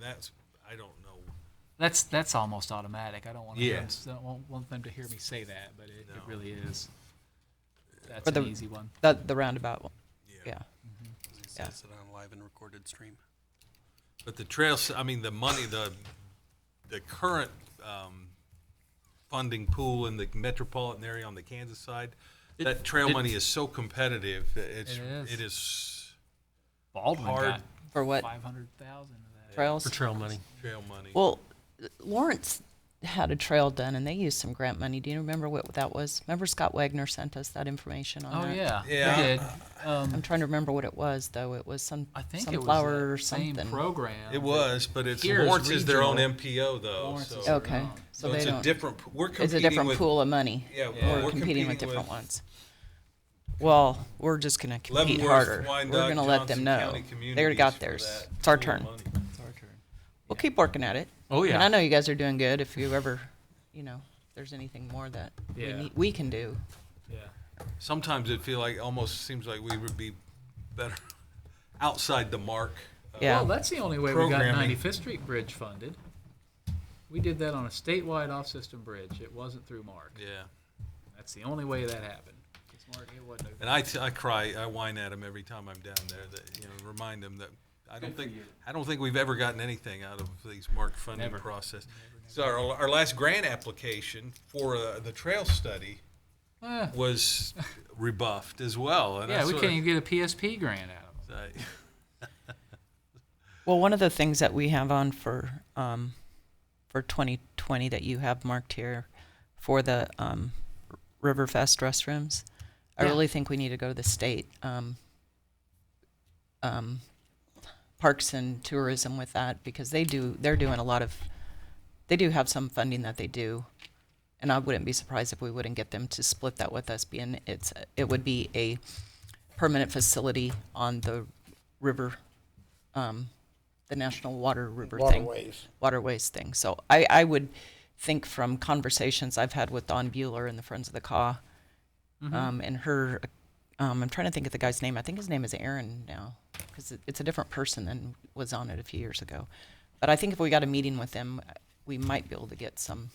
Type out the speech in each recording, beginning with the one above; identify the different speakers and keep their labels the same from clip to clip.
Speaker 1: that's, I don't know.
Speaker 2: That's, that's almost automatic. I don't want them,
Speaker 1: Yes.
Speaker 2: I don't want- want them to hear me say that, but it,
Speaker 1: No.
Speaker 2: it really is. That's
Speaker 3: Or
Speaker 2: an
Speaker 3: the-
Speaker 2: easy one.
Speaker 3: The, the roundabout one, yeah.
Speaker 4: As he
Speaker 3: Yeah.
Speaker 4: says it on live and recorded stream.
Speaker 1: But the trails, I mean, the money, the, the current, um, funding pool in the metropolitan area on the Kansas side, that trail
Speaker 2: it-
Speaker 1: money is so competitive, that it's,
Speaker 2: It is.
Speaker 1: it is
Speaker 3: Oh
Speaker 2: Baldwin
Speaker 1: hard
Speaker 2: got
Speaker 3: For what,
Speaker 2: five hundred thousand of that.
Speaker 3: trails?
Speaker 4: For trail money.
Speaker 1: trail money.
Speaker 3: Well, Lawrence had a trail done and they used some grant money. Do you remember what that was? Remember Scott Wagner sent us that information on
Speaker 2: Oh,
Speaker 3: that?
Speaker 2: yeah. they
Speaker 1: Yeah.
Speaker 2: did.
Speaker 3: I'm
Speaker 2: Um,
Speaker 3: trying to remember what it was though. It was some,
Speaker 2: I think it was
Speaker 3: sunflower or
Speaker 2: that same
Speaker 3: something.
Speaker 2: program.
Speaker 1: It was, but it's,
Speaker 2: Here's
Speaker 1: Lawrence is their own
Speaker 2: regional.
Speaker 1: MPO though,
Speaker 2: Lawrence
Speaker 1: so.
Speaker 2: is-
Speaker 3: Okay,
Speaker 2: Oh.
Speaker 3: so
Speaker 1: so
Speaker 3: they
Speaker 1: it's a
Speaker 3: don't,
Speaker 1: different, p- we're
Speaker 3: it's a
Speaker 1: competing
Speaker 3: different
Speaker 1: with,
Speaker 3: pool of money.
Speaker 1: yeah,
Speaker 2: Yeah.
Speaker 1: we're
Speaker 3: We're competing with
Speaker 1: ones.
Speaker 3: different ones. Well, we're just gonna compete
Speaker 1: Leavenworth,
Speaker 3: harder. We're
Speaker 1: Wyandotte,
Speaker 3: gonna let
Speaker 1: Johnson
Speaker 3: them know.
Speaker 1: County
Speaker 3: They already
Speaker 1: Communities
Speaker 3: got
Speaker 1: for
Speaker 3: theirs.
Speaker 1: that
Speaker 3: It's our
Speaker 1: pool of
Speaker 3: turn.
Speaker 1: money.
Speaker 2: It's our turn.
Speaker 3: We'll keep working at it.
Speaker 4: Oh,
Speaker 3: And
Speaker 4: yeah.
Speaker 3: I know you guys are doing good. If you ever, you know, if there's anything more that we
Speaker 2: Yeah.
Speaker 3: need, we can do.
Speaker 2: Yeah.
Speaker 1: sometimes it feel like almost seems like we would be better outside the mark. Uh,
Speaker 4: Oh,
Speaker 1: of-
Speaker 3: Yeah.
Speaker 2: Well, that's the only way we got
Speaker 1: Programming.
Speaker 2: 95th Street Bridge funded. We did that on a statewide off-system bridge. It wasn't through Mark.
Speaker 1: Yeah.
Speaker 2: That's the only way that happened. 'Cause Mark, it wasn't.
Speaker 1: And I, t- I cry, I whine at them every time I'm down there that, you know, remind them that I don't think, I don't think we've ever gotten anything out of these mark funding
Speaker 2: Never.
Speaker 1: process. So our, our last grant application for uh, the trail study
Speaker 2: Eh,
Speaker 1: was rebuffed as well. and I
Speaker 2: yeah, we
Speaker 1: sorta-
Speaker 2: can't even get a PSP grant out of it.
Speaker 1: I-
Speaker 3: Well, one of the things that we have on for, um, for 2020 that you have marked here for the, um, Riverfest restrooms, I
Speaker 2: Yeah.
Speaker 3: really think we need to go to the state, um, um, parks and tourism with that because they do, they're doing a lot of, they do have some funding that they do. And I wouldn't be surprised if we wouldn't get them to split that with us being it's, it would be a permanent facility on the river, um, the National Water River thing
Speaker 5: waterways.
Speaker 3: waterways thing. So I, I would think from conversations I've had with Don Bueller and the Friends of the Caw, um, and her, um, I'm trying to think of the guy's name. I think his name is Aaron now, because it, it's a different person than was on it a few years ago. But I think if we got a meeting with them, we might be able to get some.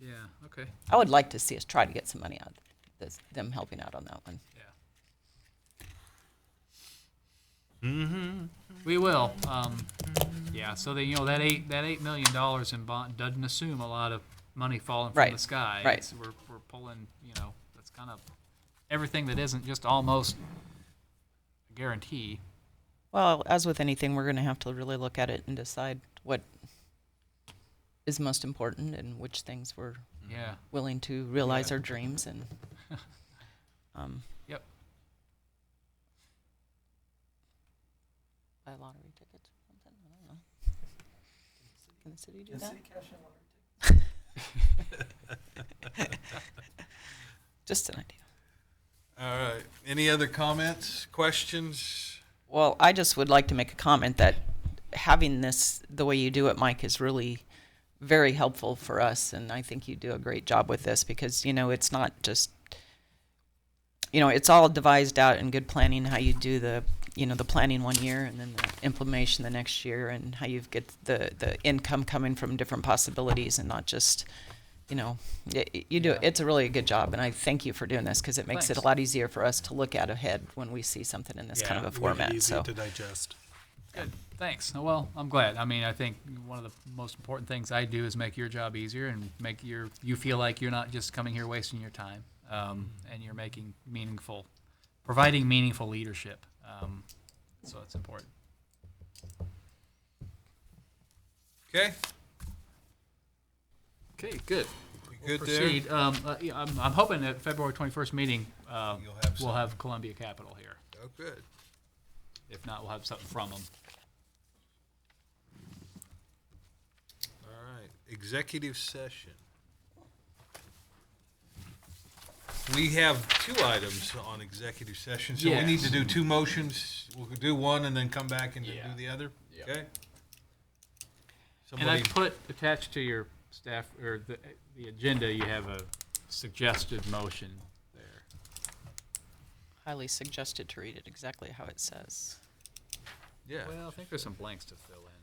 Speaker 2: Yeah, okay,
Speaker 3: I would like to see us try to get some money out of this, them helping out on that one.
Speaker 2: yeah. Mm-hmm. We will, um, yeah, so then, you know, that eight, that eight million dollars in bond doesn't assume a lot of money falling from the
Speaker 3: Right,
Speaker 2: sky.
Speaker 3: right.
Speaker 2: It's- We're, we're pulling, you know, that's kind of, everything that isn't just almost a guarantee.
Speaker 3: Well, as with anything, we're going to have to really look at it and decide what is most important and which things we're
Speaker 2: Yeah,
Speaker 3: willing to realize our dreams and um,
Speaker 2: Yep.
Speaker 3: buy lottery tickets or something. I don't know. Can the city do that? Just an idea.
Speaker 1: All right. Any other comments, questions?
Speaker 3: Well, I just would like to make a comment that having this the way you do it, Mike, is really very helpful for us, and I think you do a great job with this because you know it's not just you know it's all devised out in good planning how you do the you know the planning one year and then the implementation the next year and how you get the the income coming from different possibilities and not just you know y y- you do it's a really good job and i thank you for doing this because it makes it a
Speaker 2: Thanks.
Speaker 3: lot easier for us to look at ahead when we see something in this kind of a format so
Speaker 4: Easy to digest.
Speaker 2: Good. Thanks. Oh, Well, I'm glad. I mean, I think one of the most important things I do is make your job easier and make your you feel like you're not just coming here wasting your time, um,
Speaker 1: Mm-hmm.
Speaker 2: and you're making meaningful, providing meaningful leadership. Um, so it's important.
Speaker 1: Okay,
Speaker 2: Okay. Good.
Speaker 1: we good there?
Speaker 2: Proceed. Um, uh, yeah, I'm, I'm hoping that February 21st meeting uh,
Speaker 1: You'll have
Speaker 2: we'll
Speaker 1: some.
Speaker 2: have Columbia Capital here.
Speaker 1: Oh, good.
Speaker 2: If not, we'll have something from them.
Speaker 1: All right, executive session. We have two items on executive session, so we need to
Speaker 2: Yes.
Speaker 1: do two motions. We'll do one and then come back and then
Speaker 2: Yeah.
Speaker 1: do the other,
Speaker 2: Yeah.
Speaker 1: okay?
Speaker 2: And
Speaker 1: Somebody,
Speaker 2: I put attached to your staff, or the, the agenda, you have a suggested motion there.
Speaker 3: highly suggested to read it exactly how it says.
Speaker 1: Yeah.
Speaker 2: Well, I think there's some blanks to fill in.